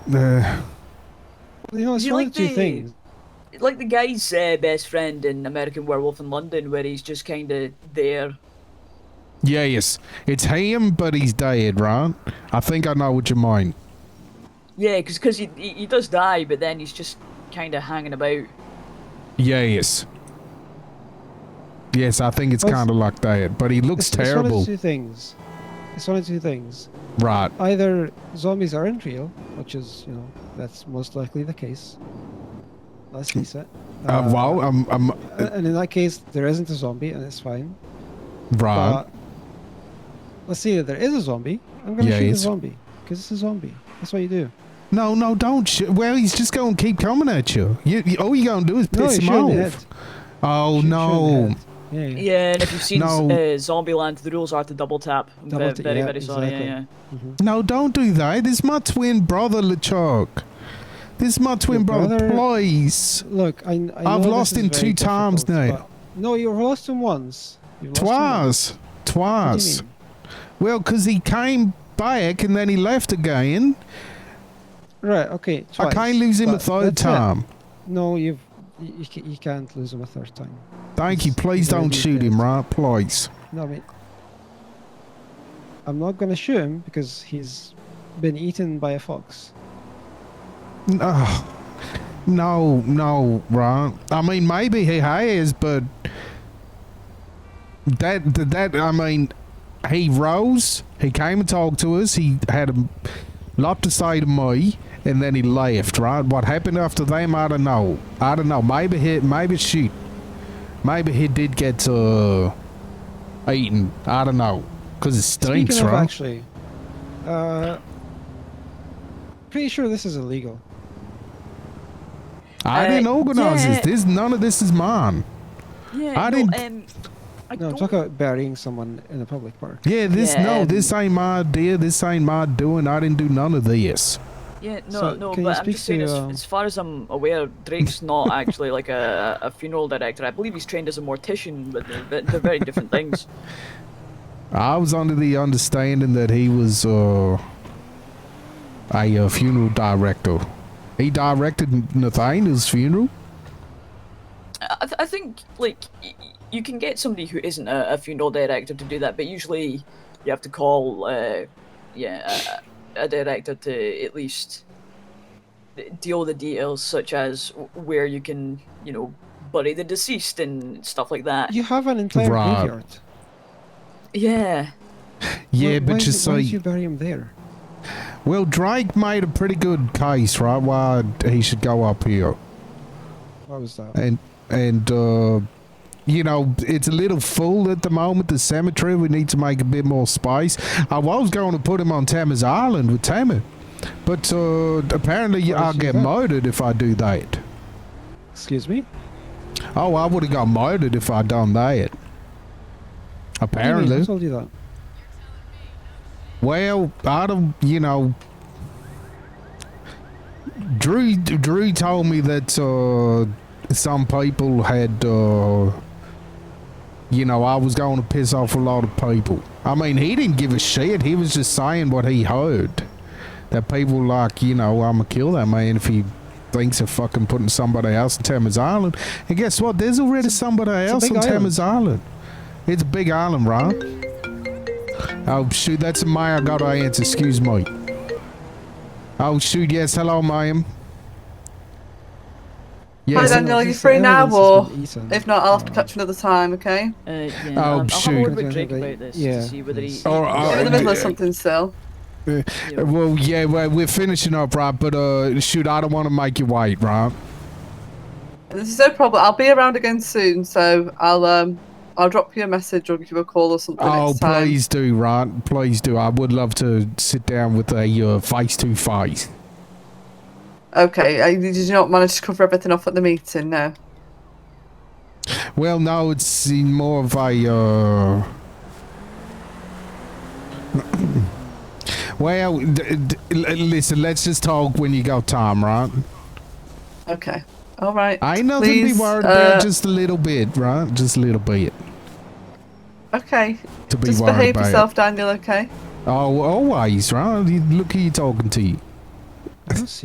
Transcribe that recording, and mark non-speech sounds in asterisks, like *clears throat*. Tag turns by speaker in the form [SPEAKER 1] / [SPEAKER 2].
[SPEAKER 1] Uh, you know, it's
[SPEAKER 2] You
[SPEAKER 1] one
[SPEAKER 2] like
[SPEAKER 1] of two
[SPEAKER 2] the-
[SPEAKER 1] things.
[SPEAKER 2] Like the guy's uh, best friend in American Werewolf in London, where he's just kind of there.
[SPEAKER 1] Yeah, yes. It's him, but he's dead, right? I think I know what you mean.
[SPEAKER 2] Yeah, because he, he he does die, but then he's just kind of hanging about.
[SPEAKER 1] Yeah, yes. Yes, I think it's
[SPEAKER 3] Well, it's-
[SPEAKER 1] kind of like that, but he looks
[SPEAKER 3] It's one
[SPEAKER 1] terrible.
[SPEAKER 3] of two things. It's one of two things.
[SPEAKER 1] Right.
[SPEAKER 3] Either zombies aren't real, which is, you know, that's most likely the case. Let's face it.
[SPEAKER 1] Uh, well, I'm, I'm,
[SPEAKER 3] a- and in that case, there isn't a zombie, and it's fine.
[SPEAKER 1] right.
[SPEAKER 3] But let's say that there is a zombie. I'm going to
[SPEAKER 1] Yeah,
[SPEAKER 3] shoot a
[SPEAKER 1] it's-
[SPEAKER 3] zombie because it's a zombie. That's what you do.
[SPEAKER 1] No, no, don't. Sh- well, he's just going to keep coming at you. you, you all you're going to do is
[SPEAKER 3] no,
[SPEAKER 1] piss
[SPEAKER 3] you
[SPEAKER 1] him
[SPEAKER 3] shoot in the
[SPEAKER 1] off.
[SPEAKER 3] head.
[SPEAKER 1] Oh,
[SPEAKER 3] Shoot- shoot in the
[SPEAKER 1] no.
[SPEAKER 3] head. Yeah, yeah.
[SPEAKER 2] Yeah, and if you've seen
[SPEAKER 1] No.
[SPEAKER 2] uh, Zombieland, the rules are to double tap. I'm
[SPEAKER 3] Double
[SPEAKER 2] ve-
[SPEAKER 3] ta-
[SPEAKER 2] very,
[SPEAKER 3] yeah,
[SPEAKER 2] very sorry.
[SPEAKER 3] exactly.
[SPEAKER 2] Yeah, yeah.
[SPEAKER 3] Mm-hmm.
[SPEAKER 1] No, don't do that. This is my twin brother, LeChuck. This is my twin brother,
[SPEAKER 3] brother-
[SPEAKER 1] please.
[SPEAKER 3] Look, I, I know
[SPEAKER 1] I've
[SPEAKER 3] this
[SPEAKER 1] lost
[SPEAKER 3] is
[SPEAKER 1] him
[SPEAKER 3] very
[SPEAKER 1] two times
[SPEAKER 3] difficult,
[SPEAKER 1] now.
[SPEAKER 3] but- No, you've lost him once. You've lost him
[SPEAKER 1] Twice.
[SPEAKER 3] once. What do you
[SPEAKER 1] Twice.
[SPEAKER 3] mean?
[SPEAKER 1] Well, 'cause he came back and then he left again.
[SPEAKER 3] Right. Okay.
[SPEAKER 1] I
[SPEAKER 3] Twice.
[SPEAKER 1] can't lose him a
[SPEAKER 3] but
[SPEAKER 1] third
[SPEAKER 3] that's it.
[SPEAKER 1] time.
[SPEAKER 3] No, you've you, you ca- you can't lose him a third time.
[SPEAKER 1] Thank you.
[SPEAKER 3] He's
[SPEAKER 1] Please don't
[SPEAKER 3] already
[SPEAKER 1] shoot
[SPEAKER 3] dead.
[SPEAKER 1] him, right? Please.
[SPEAKER 3] No, I mean, I'm not gonna shoot him because he's been eaten by a fox.
[SPEAKER 1] No. No, no, right? I mean, maybe he has, but that, that, that I mean, he rose, he came and talked to us, he had a lot to say to me, and then he left, right? What happened after them, I don't know. I don't know. Maybe he, maybe she, maybe he did get, uh, eaten. I don't know. Because it stinks,
[SPEAKER 3] Speaking of
[SPEAKER 1] right?
[SPEAKER 3] actually, uh, pretty sure this is illegal.
[SPEAKER 1] I
[SPEAKER 2] Uh,
[SPEAKER 1] didn't organize
[SPEAKER 2] yeah.
[SPEAKER 1] this. This, none of this is mine.
[SPEAKER 2] yeah
[SPEAKER 1] I
[SPEAKER 2] no,
[SPEAKER 1] didn't-
[SPEAKER 2] Um, I
[SPEAKER 3] No,
[SPEAKER 2] don't
[SPEAKER 3] talk about burying someone in a public park.
[SPEAKER 1] Yeah, this
[SPEAKER 2] Yeah,
[SPEAKER 1] no,
[SPEAKER 2] um,
[SPEAKER 1] this ain't my idea. This ain't my doing. I didn't do none of this.
[SPEAKER 2] Yeah, no,
[SPEAKER 3] So,
[SPEAKER 2] no,
[SPEAKER 3] can you
[SPEAKER 2] but I'm
[SPEAKER 3] speak
[SPEAKER 2] just saying,
[SPEAKER 3] to,
[SPEAKER 2] as,
[SPEAKER 3] um,
[SPEAKER 2] as far as I'm aware, Drake's not actually like a, a funeral director. I believe he's trained as a mortician, but they're, ve- they're very different things.
[SPEAKER 1] I was under the understanding that he was uh, a uh, funeral director. He directed Nathaniel's funeral.
[SPEAKER 2] I, I th- I think, like, y- y- you can get somebody who isn't a, a funeral director to do that, but usually you have to call, uh, yeah, a, a director to at least d- deal with the details, such as w- where you can, you know, bury the deceased and stuff like that.
[SPEAKER 3] You have an entire
[SPEAKER 1] Right.
[SPEAKER 3] graveyard.
[SPEAKER 2] Yeah.
[SPEAKER 1] Yeah,
[SPEAKER 3] Why- why
[SPEAKER 1] but you
[SPEAKER 3] is it- why did
[SPEAKER 1] see,
[SPEAKER 3] you bury him there?
[SPEAKER 1] well, Drake made a pretty good case, right? Why he should go up here.
[SPEAKER 3] What was that?
[SPEAKER 1] and and uh you know it's a little full at the moment the cemetery we need to make a bit more space i was going to put him on tammy's island with tammy but uh apparently
[SPEAKER 3] Why
[SPEAKER 1] i'll
[SPEAKER 3] is he
[SPEAKER 1] get
[SPEAKER 3] back?
[SPEAKER 1] murdered if i do that
[SPEAKER 3] Excuse me.
[SPEAKER 1] oh i would have got murdered if i done that
[SPEAKER 3] What do you mean?
[SPEAKER 1] apparently
[SPEAKER 3] Who told you that?
[SPEAKER 1] Well, I don't, you know. Drew Drew told me that uh, some people had, uh, you know, I was going to piss off a lot of people. I mean, he didn't give a shit. He was just saying what he heard. That people like, you know, I'ma kill that man if he thinks of fucking putting somebody else on Tammers Island. And guess what? There's already somebody
[SPEAKER 3] a
[SPEAKER 1] else
[SPEAKER 3] big
[SPEAKER 1] on
[SPEAKER 3] island.
[SPEAKER 1] Tammers Island. It's a big island, right? Oh shoot, that's a Maya. I gotta answer. Excuse me. Oh shoot, yes. Hello, Mayim.
[SPEAKER 4] Hi,
[SPEAKER 1] Yes.
[SPEAKER 3] Hello.
[SPEAKER 4] Daniel, are you
[SPEAKER 3] It's
[SPEAKER 4] free
[SPEAKER 3] the
[SPEAKER 4] now,
[SPEAKER 3] evidence has
[SPEAKER 4] or
[SPEAKER 3] been eaten.
[SPEAKER 4] if not, I'll have to catch you another time, okay?
[SPEAKER 2] Uh, yeah,
[SPEAKER 1] Oh,
[SPEAKER 2] um, I'll have a
[SPEAKER 1] shoot.
[SPEAKER 2] word with Drake about this
[SPEAKER 3] Yeah.
[SPEAKER 2] to see whether he.
[SPEAKER 1] Or- or-
[SPEAKER 2] he-
[SPEAKER 4] You're in the
[SPEAKER 1] Oh,
[SPEAKER 4] middle of
[SPEAKER 1] yeah.
[SPEAKER 4] something still.
[SPEAKER 2] you know,
[SPEAKER 1] Well, yeah, well, we're finishing up, right? But uh, shoot, I don't want to make you wait, right?
[SPEAKER 4] This is no problem. I'll be around again soon, so I'll um, I'll drop you a message or give you a call or something
[SPEAKER 1] Oh,
[SPEAKER 4] next time.
[SPEAKER 1] please do, right? Please do. I would love to sit down with a uh, face to face.
[SPEAKER 4] Okay. I, did you not manage to cover everything off at the meeting? No.
[SPEAKER 1] Well, no, it's in more of a. Uh... *clears throat* well, d- d- l- listen, let's just talk when you got time, right?
[SPEAKER 4] Okay. All right.
[SPEAKER 1] I know to be
[SPEAKER 4] Please,
[SPEAKER 1] worried about
[SPEAKER 4] uh,
[SPEAKER 1] just a little bit, right? Just a little bit
[SPEAKER 4] Okay.
[SPEAKER 1] to be
[SPEAKER 4] Just
[SPEAKER 1] worried
[SPEAKER 4] behave
[SPEAKER 1] about.
[SPEAKER 4] yourself, Daniel. Okay.
[SPEAKER 1] Oh, always, right? You- Look who you talking to.
[SPEAKER 3] I don't see